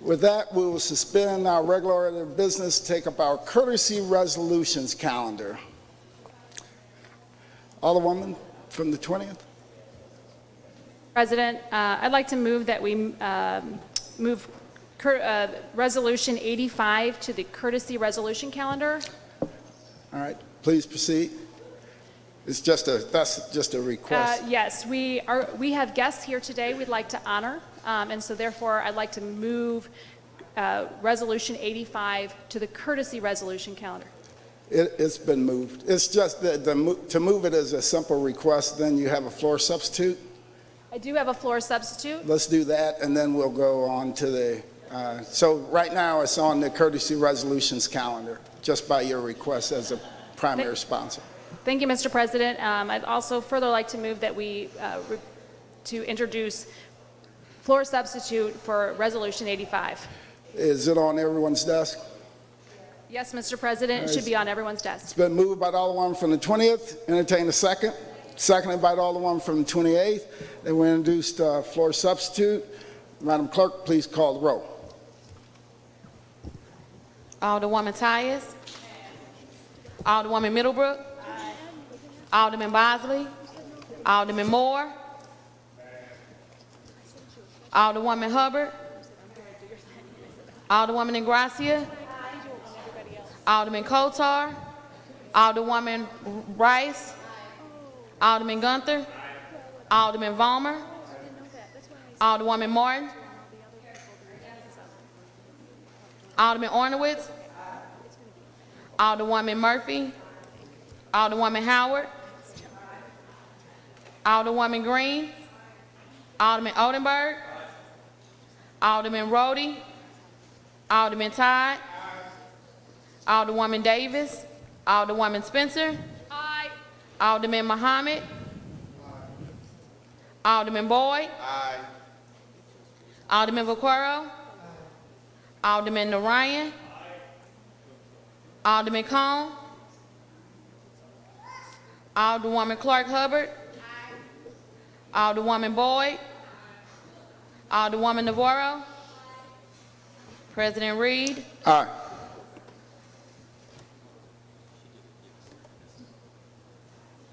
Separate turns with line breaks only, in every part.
With that, we will suspend our regular order of business, take up our courtesy resolutions calendar. Alderwoman from the 20th?
President, uh, I'd like to move that we um, move cur- uh, Resolution 85 to the courtesy resolution calendar.
All right, please proceed. It's just a, that's just a
Uh,
request.
Yes, we are, we have guests here today we'd like to honor, um, and so therefore, I'd like to move uh, Resolution 85 to the courtesy resolution calendar.
It, it's been moved. It's just that the, mo- to move it is a simple request, then you have a floor substitute.
I do have a floor substitute.
Let's do that, and then we'll go on to the, uh, so right now, it's on the courtesy resolutions calendar, just by your request as a primary sponsor.
Thank you, Mr. President. Um, I'd also further like to move that we, uh, re- to introduce floor substitute for Resolution 85.
Is it on everyone's desk?
Yes, Mr. President, it should be on everyone's
It's
desk.
been moved by the Alderman from the 20th, entertain a second. Seconded by the Alderman from the 28th, then we introduced uh, floor substitute. Madam Clerk, please call the roll.
Alderwoman Tyus. Alderwoman Middlebrook. Alderman Bosley. Alderman Moore. Alderwoman Hubbard. Alderwoman Ingracia. Alderman Kotar. Alderwoman Rice. Alderman Gunther. Alderman Vollmer. Alderwoman Martin. Alderman Ornowitz. Alderwoman Murphy. Alderwoman Howard. Alderwoman Green. Alderman Odenberg. Alderman Rhodey. Alderman Todd. Alderwoman Davis. Alderwoman Spencer.
Aye.
Alderman Muhammad. Alderman Boyd. Alderman Vaquero. Alderman Narayan. Alderman Cone. Alderwoman Clark Hubbard. Alderwoman Boyd. Alderwoman Navarro. President Reed.
Aye.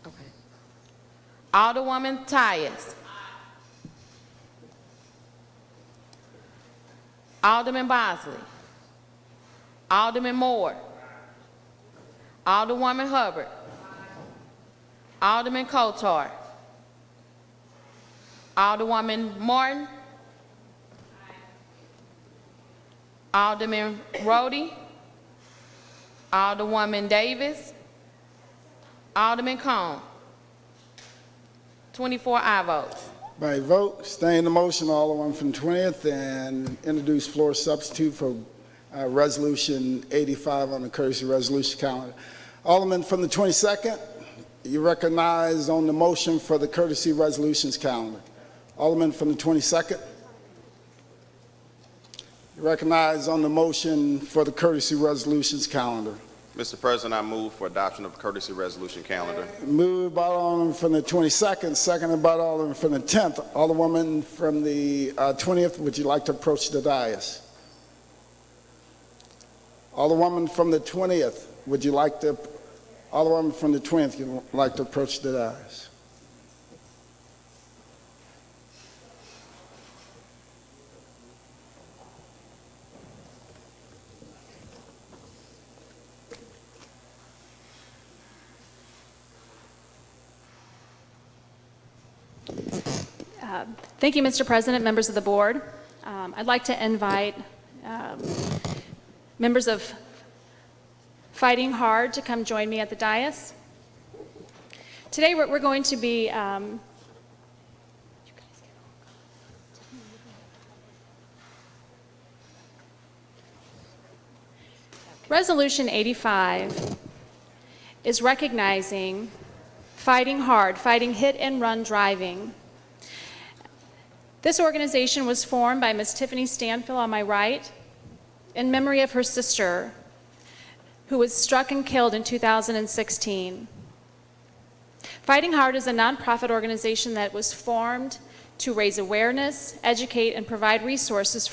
Okay. Alderwoman Tyus. Alderman Bosley. Alderman Moore. Alderwoman Hubbard. Alderman Kotar. Alderwoman Martin. Alderman Rhodey. Alderwoman Davis. Alderman Cone. 24 aye votes.
By vote, stay in the motion, Alderman from 20th, and introduce floor substitute for uh, Resolution 85 on the courtesy resolution calendar. Alderman from the 22nd, you recognize on the motion for the courtesy resolutions calendar. Alderman from the 22nd, you recognize on the motion for the courtesy resolutions calendar.
Mr. President, I move for adoption of courtesy resolution calendar.
Moved by Alderman from the 22nd, seconded by Alderman from the 10th. Alderwoman from the uh, 20th, would you like to approach the dais? Alderwoman from the 20th, would you like to, Alderwoman from the 20th, you'd like to approach the dais?
Thank you, Mr. President, members of the board. Um, I'd like to invite um, members of Fighting Hard to come join me at the dais. Today, we're we're going to be um, Resolution 85 is recognizing Fighting Hard, fighting hit and run driving. This organization was formed by Miss Tiffany Stanfill on my right in memory of her sister, who was struck and killed in 2016. Fighting Hard is a nonprofit organization that was formed to raise awareness, educate, and provide resources